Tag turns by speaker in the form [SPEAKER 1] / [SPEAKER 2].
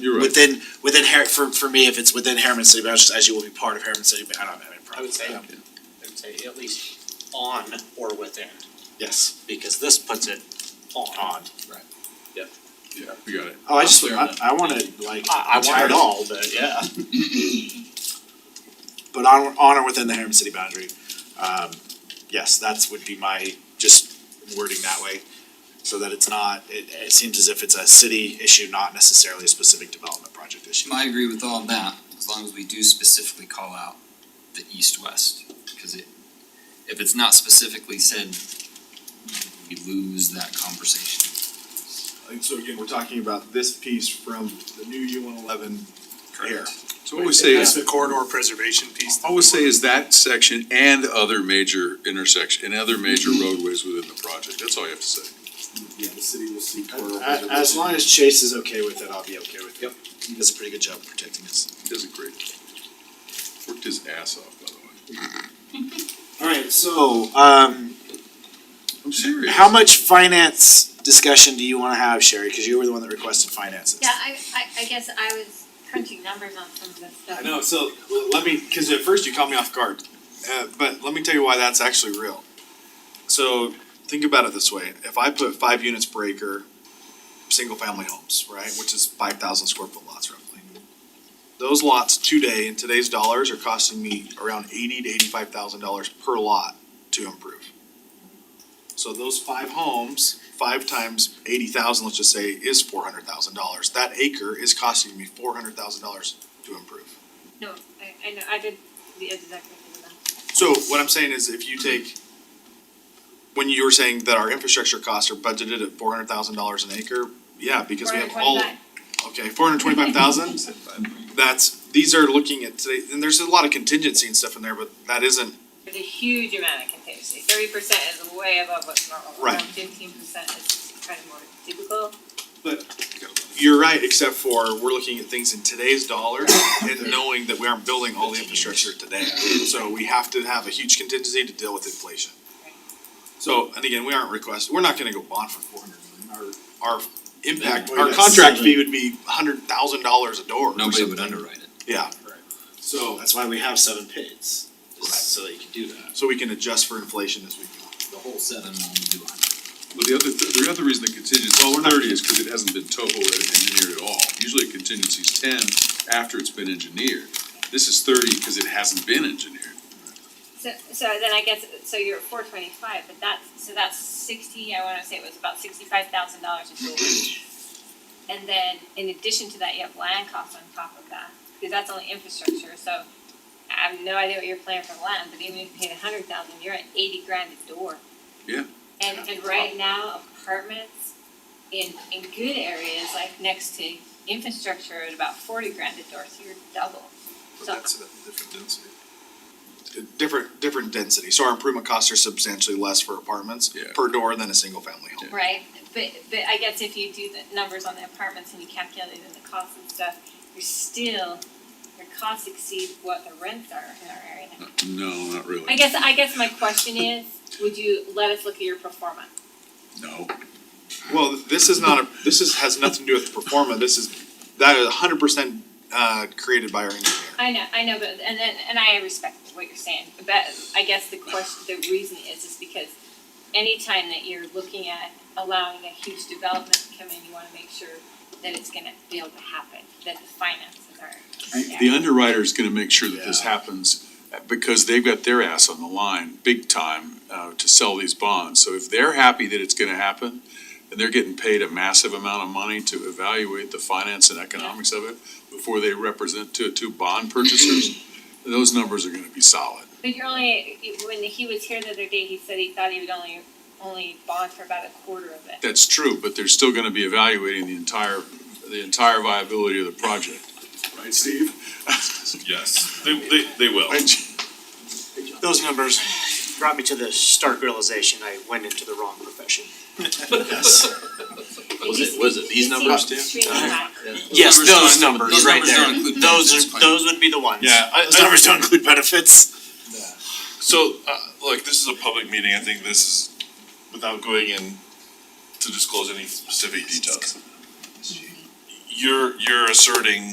[SPEAKER 1] You're right.
[SPEAKER 2] Within, within Har- for, for me, if it's within Harriman City, but I just, as you will be part of Harriman City, but I don't have any
[SPEAKER 3] I
[SPEAKER 2] problem
[SPEAKER 3] would
[SPEAKER 2] with
[SPEAKER 3] say, I
[SPEAKER 2] that.
[SPEAKER 3] would say at least on or within,
[SPEAKER 2] Yes.
[SPEAKER 3] because this puts it on.
[SPEAKER 1] Yeah, we got it.
[SPEAKER 2] Oh, I just,
[SPEAKER 1] Clear
[SPEAKER 2] I,
[SPEAKER 1] enough.
[SPEAKER 2] I wanted like,
[SPEAKER 3] I- I
[SPEAKER 2] I want
[SPEAKER 3] wanted-
[SPEAKER 2] it all, but yeah. But on, on or within the Harriman City boundary, um, yes, that's would be my, just wording that way. So that it's not, it, it seems as if it's a city issue, not necessarily a specific development project issue.
[SPEAKER 4] I agree with all of that, as long as we do specifically call out the east-west, cause it, if it's not specifically said, we lose that conversation.
[SPEAKER 5] And so again, we're talking about this piece from the new U one eleven here.
[SPEAKER 1] So what we say
[SPEAKER 6] That's
[SPEAKER 1] is,
[SPEAKER 6] the corridor preservation piece.
[SPEAKER 1] all we say is that section and other major intersection, and other major
[SPEAKER 2] Mm-hmm.
[SPEAKER 1] roadways within the project, that's all you have to say.
[SPEAKER 5] Yeah, the city will see
[SPEAKER 2] A- As, long as Chase is okay with it, I'll be okay with it. Yep. He does a pretty good job of protecting us.
[SPEAKER 1] He does a great job. Worked his ass off, by the way.
[SPEAKER 2] Alright,
[SPEAKER 7] Oh,
[SPEAKER 2] so, um,
[SPEAKER 1] I'm serious.
[SPEAKER 2] how much finance discussion do you wanna have, Sherry, cause you were the one that requested finances?
[SPEAKER 8] Yeah, I, I, I guess I was crunching numbers on some of this stuff.
[SPEAKER 5] I know, so l- let me, cause at first you caught me off guard, uh, but let me tell you why that's actually real. So think about it this way, if I put five units per acre, single family homes, right, which is five thousand square foot lots roughly. Those lots today, in today's dollars, are costing me around eighty to eighty-five thousand dollars per lot to improve. So those five homes, five times eighty thousand, let's just say, is four hundred thousand dollars, that acre is costing me four hundred thousand dollars to improve.
[SPEAKER 8] No, I, I know, I did the exact same thing.
[SPEAKER 5] So what I'm saying is if you take, when you were saying that our infrastructure costs are budgeted at four hundred thousand dollars an acre, yeah, because we have all, okay, four hundred twenty-five thousand? That's, these are looking at today, and there's a lot of contingency and stuff in there, but that isn't,
[SPEAKER 8] There's a huge amount of contingency, thirty percent is way above what's normal.
[SPEAKER 5] Right.
[SPEAKER 8] Fifteen percent is kind of more typical.
[SPEAKER 5] you're right, except for we're looking at things in today's dollars and knowing that we aren't building all the infrastructure today. So we have to have a huge contingency to deal with inflation. So, and again, we aren't requesting, we're not gonna go bond for four hundred million, our, our impact,
[SPEAKER 2] Well,
[SPEAKER 5] our
[SPEAKER 2] that's
[SPEAKER 5] contract
[SPEAKER 2] seven.
[SPEAKER 5] fee would be a hundred thousand dollars a door or
[SPEAKER 4] Nobody would
[SPEAKER 5] something.
[SPEAKER 4] underwrite it.
[SPEAKER 5] Yeah,
[SPEAKER 2] So that's why we have seven pits,
[SPEAKER 5] Right.
[SPEAKER 2] just so that you can do that.
[SPEAKER 5] so we can adjust for inflation as we go.
[SPEAKER 4] The whole seven will only do a hundred.
[SPEAKER 1] Well, the other, th- the other reason the contingency is thirty is because it hasn't been topo engineered at all. Usually a contingency is ten after it's been engineered. This is thirty because it hasn't been engineered.
[SPEAKER 8] So, so then I guess, so you're at four twenty-five, but that's, so that's sixty, I wanna say it was about sixty-five thousand dollars a door. And then in addition to that, you have land costs on top of that, because that's only infrastructure, so I have no idea what you're planning for land, but even if you paid a hundred thousand, you're at eighty grand a door.
[SPEAKER 1] Yeah.
[SPEAKER 8] And, and right now apartments in, in good areas, like next to infrastructure are at about forty grand a door, so you're double.
[SPEAKER 5] But
[SPEAKER 8] So-
[SPEAKER 5] that's at a different density. Uh, Different, different density, so our improvement costs are substantially less for apartments
[SPEAKER 1] Yeah.
[SPEAKER 5] per door than a single family home.
[SPEAKER 8] Right, but, but I guess if you do the numbers on the apartments and you calculate in the costs and stuff, you're still, your costs exceed what the rents are in our area. now.
[SPEAKER 1] No, not
[SPEAKER 8] I
[SPEAKER 1] really.
[SPEAKER 8] guess, I guess my question is, would you let us look at your performance?
[SPEAKER 1] No.
[SPEAKER 5] Well, this is not a, this is, has nothing to do with performa, this is, that is hundred percent, uh, created by our engineer.
[SPEAKER 8] I know, I know, but, and then, and I respect what you're saying, but I guess the question, the reason is, is because anytime that you're looking at allowing a huge development to come in, you wanna make sure that it's gonna be able to happen, that the finances are, are there.
[SPEAKER 1] The underwriter's gonna make sure that this
[SPEAKER 2] Yeah.
[SPEAKER 1] happens, uh, because they've got their ass on the line, big time, uh, to sell these bonds. So if they're happy that it's gonna happen, and they're getting paid a massive amount of money to evaluate the finance and economics of it before they represent to, to bond purchasers, those numbers are gonna be solid.
[SPEAKER 8] But you're only, when he was here the other day, he said he thought he would only, only bond for about a quarter of it.
[SPEAKER 1] That's true, but they're still gonna be evaluating the entire, the entire viability of the project, right, Steve?
[SPEAKER 6] Yes, they, they, they will.
[SPEAKER 7] those numbers brought me to the stark realization I went into the wrong profession.
[SPEAKER 8] Was it, was it these numbers too?
[SPEAKER 7] Yes,
[SPEAKER 4] numbers don't-
[SPEAKER 7] those numbers
[SPEAKER 4] those
[SPEAKER 7] right
[SPEAKER 4] numbers don't
[SPEAKER 7] there.
[SPEAKER 4] include
[SPEAKER 7] Those
[SPEAKER 4] benefits,
[SPEAKER 7] are,
[SPEAKER 4] quite-
[SPEAKER 7] those would be the ones.
[SPEAKER 6] Yeah,
[SPEAKER 5] Uh,
[SPEAKER 6] I,
[SPEAKER 2] Those
[SPEAKER 6] I-
[SPEAKER 2] numbers don't include benefits.
[SPEAKER 6] so, uh, look, this is a public meeting, I think this is, without going in to disclose any specific details. you're, you're asserting